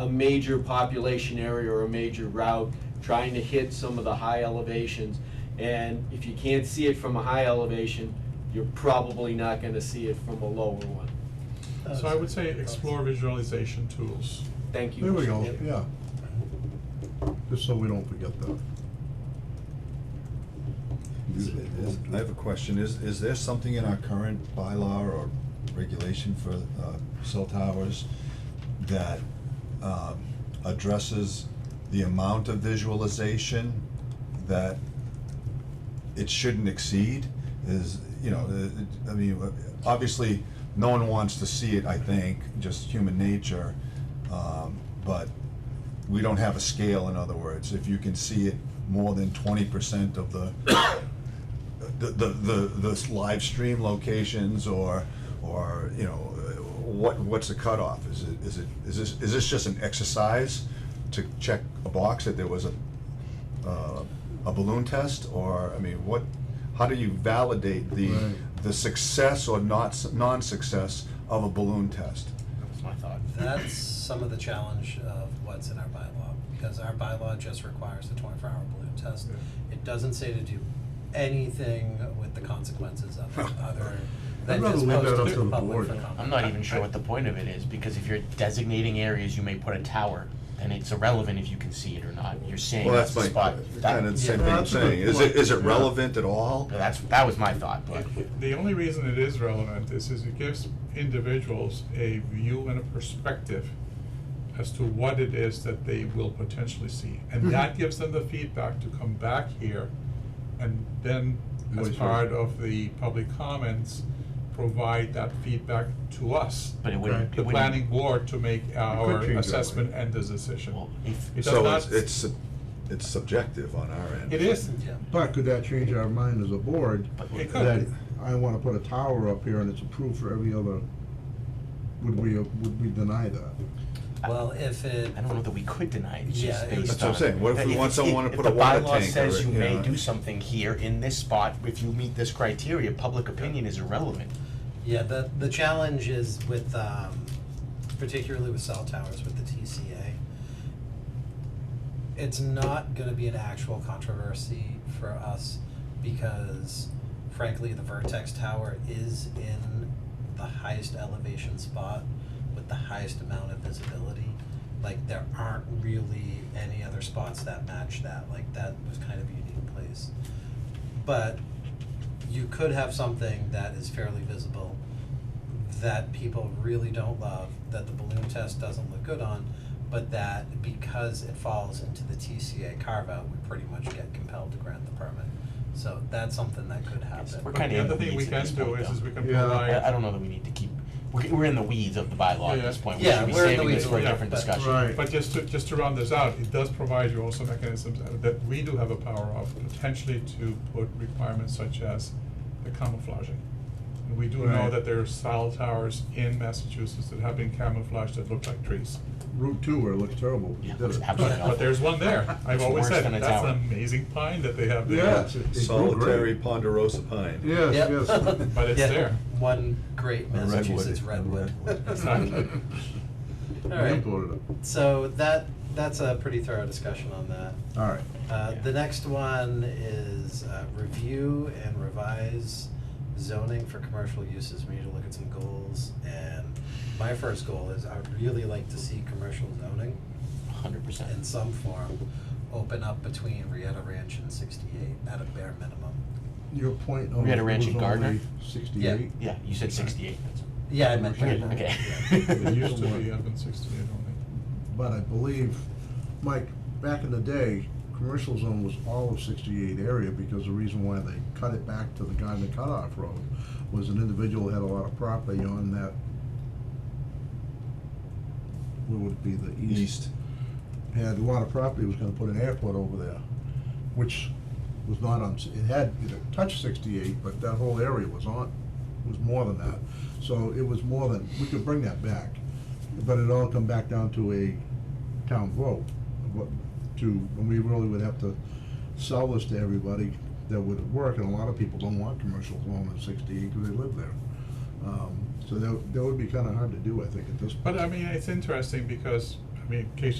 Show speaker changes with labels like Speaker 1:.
Speaker 1: a major population area or a major route, trying to hit some of the high elevations. And if you can't see it from a high elevation, you're probably not gonna see it from a lower one.
Speaker 2: Uh,
Speaker 3: So I would say explore visualization tools.
Speaker 1: Thank you.
Speaker 4: There we
Speaker 1: Mr.
Speaker 4: go,
Speaker 1: Chairman.
Speaker 4: yeah. Just so we don't forget that.
Speaker 5: Is- is- I have a question, is, is there something in our current bylaw or regulation for, uh, cell towers that, um, addresses the amount of visualization that it shouldn't exceed? Is, you know, the- the- I mean, obviously, no one wants to see it, I think, just human nature, um, but we don't have a scale, in other words, if you can see it more than twenty percent of the the, the, the, the live stream locations or, or, you know, uh, what, what's the cutoff? Is it, is it, is this, is this just an exercise to check a box that there was a, uh, a balloon test? Or, I mean, what, how do you validate the,
Speaker 4: Right.
Speaker 5: the success or not, s- non-success of a balloon test?
Speaker 2: That's my thought.
Speaker 6: That's some of the challenge of what's in our bylaw, because our bylaw just requires the twenty-four hour balloon test. It doesn't say to do anything with the consequences of it, other than
Speaker 4: rather
Speaker 6: just
Speaker 4: leave
Speaker 6: post
Speaker 4: that up
Speaker 6: it
Speaker 4: to
Speaker 6: to
Speaker 4: the
Speaker 6: the public
Speaker 4: board.
Speaker 6: for comment.
Speaker 2: I'm not even sure what the point of it is, because if you're designating areas you may put a tower, then it's irrelevant if you can see it or not. You're saying
Speaker 5: Well,
Speaker 2: that's
Speaker 5: that's
Speaker 2: the
Speaker 5: my,
Speaker 2: spot. That-
Speaker 5: kind of the same
Speaker 4: Yeah,
Speaker 5: thing I'm
Speaker 4: that's a good
Speaker 5: saying. Is it,
Speaker 4: point.
Speaker 5: is it
Speaker 4: Yeah.
Speaker 5: relevant at all?
Speaker 2: That's, that was my thought, but
Speaker 3: The only reason it is relevant is, is it gives individuals a view and a perspective as to what it is that they will potentially see.
Speaker 2: Mm-hmm.
Speaker 3: And that gives them the feedback to come back here and then, as
Speaker 4: Voice
Speaker 3: part of the public comments, provide that feedback to us,
Speaker 2: but it wouldn't,
Speaker 3: the
Speaker 2: it
Speaker 3: planning
Speaker 2: wouldn't,
Speaker 3: board, to make our
Speaker 4: change that way.
Speaker 3: assessment and the decision.
Speaker 2: well, if,
Speaker 3: It does
Speaker 5: So
Speaker 3: not
Speaker 5: it's, it's, sub- it's subjective on our end.
Speaker 3: It is,
Speaker 6: Yeah.
Speaker 4: But could that change our mind as a board?
Speaker 2: but
Speaker 3: it could.
Speaker 4: That I wanna put a tower up here and it's approved for every other, would we, would we deny that?
Speaker 6: Well, if it,
Speaker 2: I don't know that we could deny it, it's
Speaker 6: Yeah,
Speaker 2: just
Speaker 6: it-
Speaker 2: based on.
Speaker 6: That's what I'm
Speaker 5: saying. What if
Speaker 2: that
Speaker 5: we want
Speaker 2: it-
Speaker 5: someone to
Speaker 2: if
Speaker 5: put a water
Speaker 2: The
Speaker 5: tank
Speaker 2: bylaw says
Speaker 5: or,
Speaker 2: you
Speaker 5: you
Speaker 2: may
Speaker 5: know?
Speaker 2: do something here in this spot, if you meet this criteria, public opinion is irrelevant.
Speaker 6: yeah, the, the challenge is with, um, particularly with cell towers with the TCA. It's not gonna be an actual controversy for us because frankly, the Vertex Tower is in the highest elevation spot with the highest amount of visibility. Like, there aren't really any other spots that match that, like, that was kind of a unique place. But you could have something that is fairly visible that people really don't love, that the balloon test doesn't look good on, but that because it falls into the TCA carve-out, we pretty much get compelled to grant the permit. So that's something that could happen.
Speaker 2: We're
Speaker 3: But
Speaker 2: kinda
Speaker 3: the
Speaker 2: in
Speaker 3: other
Speaker 2: the
Speaker 3: thing we
Speaker 2: weeds at
Speaker 3: can
Speaker 2: this
Speaker 3: do
Speaker 2: point,
Speaker 3: is, is
Speaker 2: though.
Speaker 3: we can
Speaker 4: Yeah.
Speaker 3: provide.
Speaker 2: I, I don't know that we need to keep, we're, we're in the weeds of the bylaw at
Speaker 3: Yeah,
Speaker 2: this
Speaker 3: yeah.
Speaker 2: point, we
Speaker 6: Yeah,
Speaker 2: should be
Speaker 6: we're in the
Speaker 2: saving this
Speaker 6: weeds,
Speaker 2: for a
Speaker 3: yeah.
Speaker 2: different
Speaker 6: But-
Speaker 2: discussion.
Speaker 4: Right.
Speaker 3: But just to, just to round this out, it does provide you also mechanisms that we do have a power of potentially to put requirements such as the camouflaging. And we do know
Speaker 4: Right.
Speaker 3: that there are cell towers in Massachusetts that have been camouflaged that look like trees.
Speaker 4: Route two where it looks terrible.
Speaker 2: Yeah,
Speaker 4: did
Speaker 2: it's
Speaker 4: it.
Speaker 2: absolutely
Speaker 3: But there's one there. I've
Speaker 2: It's
Speaker 3: always
Speaker 2: worse
Speaker 3: said,
Speaker 2: than a
Speaker 3: that's
Speaker 2: tower."
Speaker 3: an amazing pine that they have there.
Speaker 4: Yes, it- it grew
Speaker 5: Solitary
Speaker 4: great.
Speaker 5: ponderosa pine.
Speaker 4: Yes,
Speaker 6: Yep.
Speaker 4: yes.
Speaker 3: But it's
Speaker 6: Yeah,
Speaker 3: there.
Speaker 6: One great
Speaker 5: A redwood,
Speaker 6: Massachusetts
Speaker 5: a
Speaker 6: redwood.
Speaker 5: redwood.
Speaker 3: Exactly.
Speaker 6: All
Speaker 4: We
Speaker 6: right,
Speaker 4: uploaded it.
Speaker 6: so that, that's a pretty thorough discussion on that.
Speaker 4: All right.
Speaker 6: Uh,
Speaker 2: Yeah.
Speaker 6: the next one is, uh, review and revise zoning for commercial uses. We need to look at some goals. And my first goal is I'd really like to see commercial zoning
Speaker 2: Hundred percent.
Speaker 6: in some form open up between Rieta Ranch and sixty-eight at a bare minimum.
Speaker 4: Your point on.
Speaker 2: We had a ranch
Speaker 4: it was
Speaker 2: in Gardner?
Speaker 4: only Sixty-eight.
Speaker 2: Yeah, you said sixty-eight, that's.
Speaker 6: Yeah, I meant.
Speaker 4: Commercial
Speaker 6: bare
Speaker 2: Okay.
Speaker 4: zoning.
Speaker 3: It used to be up in sixty-eight only.
Speaker 4: But I believe, Mike, back in the day, commercial zone was all of sixty-eight area because the reason why they cut it back to the Gardner Cutoff Road was an individual had a lot of property on that, what would it be, the east?
Speaker 5: East.
Speaker 4: Had a lot of property, was gonna put an airport over there, which was not on, it had, it touched sixty-eight, but that whole area was on, was more than that. So it was more than, we could bring that back, but it all come back down to a town vote. What, to, and we really would have to sell this to everybody that would work, and a lot of people don't want commercial zone in sixty-eight because they live there. Um, so that, that would be kinda hard to do, I think, at this point.
Speaker 3: But I mean, it's interesting because mean, in case